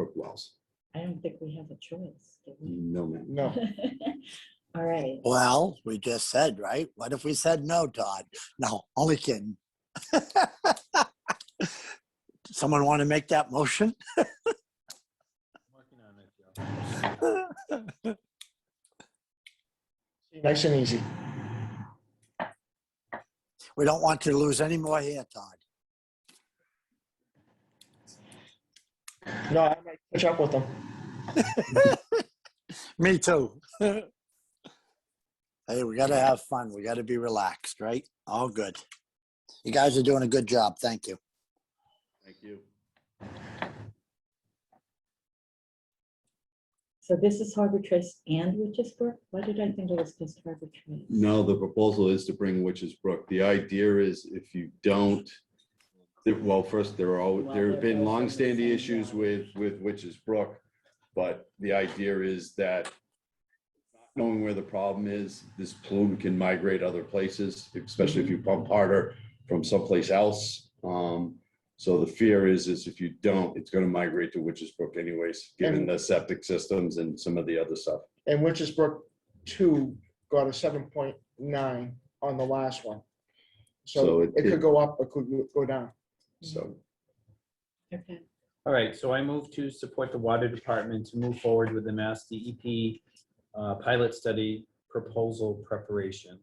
Brook Wells. I don't think we have a choice. do we? Mm, No, ma'am. No, All right. Well, we just said, right? What if we said no, Todd? No, only kidding. Someone want to make that motion? nice and easy. We don't want to lose any more here, Todd. No, I might catch up with them. Me too. Hey, we gotta have fun. We gotta be relaxed, right? All good. You guys are doing a good job. Thank you. Thank you. So this is Harbor Trace and Witches Brook? Why did I think it was just Harbor Trace? No, the proposal is to bring Witches Brook. The idea is if you don't, that- well, first, there are, al- there have been longstanding issues with, with Witches Brook. But the idea is that not knowing where the problem is, this plume can migrate other places, especially if you pump harder from someplace else. Um, So the fear is, is if you don't, it's going to migrate to Witches Brook anyways, given the septic systems and some of the other stuff. And Winchester two got a seven point nine on the last one. So So it- Mm-hmm. it could go up, it could go down. So Okay, All right, so I move to support the water department to move forward with the Mass DEP uh, pilot study proposal preparation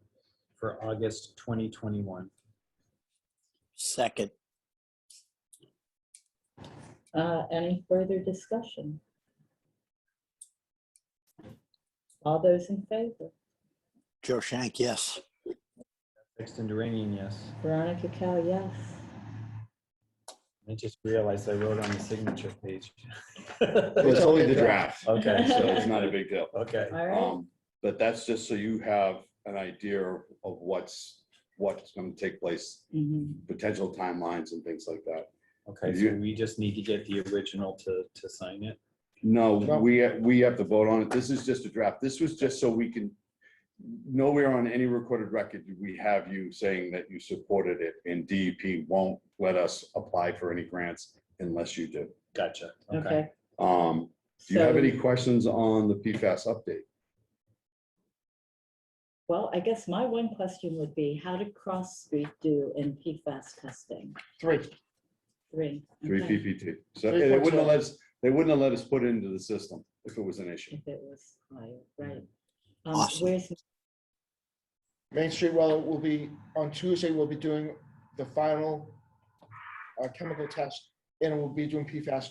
for August 2021. Second. uh, any further discussion? All those in favor? Joe Shank, yes. Sexton Duranian, yes. Veronica Cal, yes. I just realized I wrote on the signature page. Well, it's only the draft, so Okay, it's not a big deal. okay. All right, Um, But that's just so you have an idea of what's, what's going to take place, Mhm. potential timelines and things like that. Okay, so we just need to get the original to, to sign it. No, No. we, we have to vote on it. This is just a draft. This was just so we can, nowhere on any recorded record do we have you saying that you supported it, and DEP won't let us apply for any grants unless you do. Gotcha. Okay. okay. Um, Do you have So- any questions on the PFAS update? Well, I guess my one question would be, how did Cross Street do in PFAS testing? Three. Three. Three okay, PPT. So and Three they point wouldn't have two. let us, they wouldn't have let us put it into the system if it was an issue. If it was higher, right. Mm. Um, Awesome. Where's, Main Street well will be, on Tuesday, we'll be doing the final uh, chemical test and we'll be doing PFAS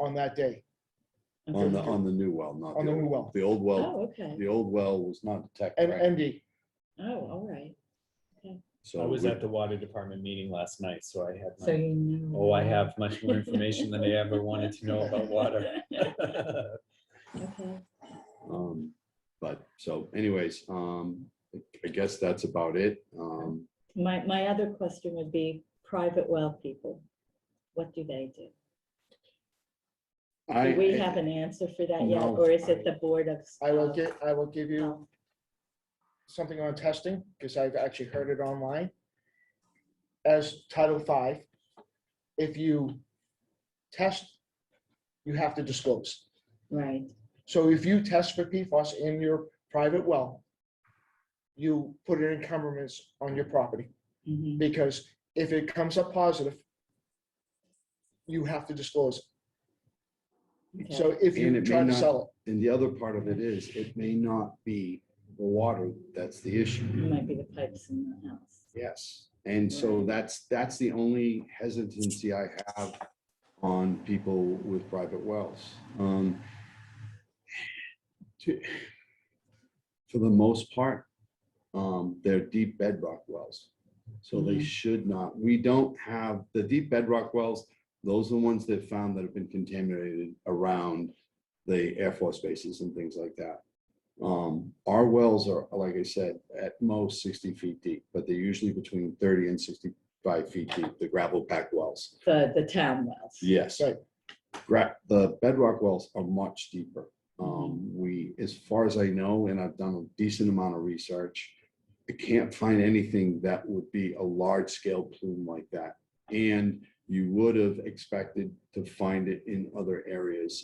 on that day, On the, okay. on the new well, not on the the new old. well. The old well, oh, okay, the old well was not detected, And right? MD, oh, all right. So I was we- at the water department meeting last night, so I had So my, you know. oh, I have much more information than I ever wanted to know about water. Okay, um, But, so anyways, um, I guess that's about it. Um, my, my other question would be private well people. What do they do? I. Do we have an answer for that yet, No, or is it I- the Board of? I will of get, I will give you Health? something on testing, because I've actually heard it online. As Title V, if you test, you have to disclose. Right, So if you test for PFAS in your private well, you put in encumbrance on your property, mhm, because if it comes up positive, you have to disclose. it. okay. So if And it you may try to not- sell it, And the other part of it is, it may not be the water that's the It issue. might be the pipes in the house. Yes. And so that's, that's the only hesitancy I have on people with private wells. Um, to- For the most part, um, they're deep bedrock wells. So they Mhm. should not, we don't have, the deep bedrock wells, those are the ones that found that have been contaminated around the Air Force bases and things like that. Um, our wells are, like I said, at most sixty feet deep, but they're usually between thirty and sixty-five feet deep, the gravel packed wells. The, the town wells. Yes. Right. Gra- the bedrock wells are much deeper. Um, we, as far as I know, and I've done a decent amount of research, I can't find anything that would be a large scale plume like that. And you would have expected to find it in other areas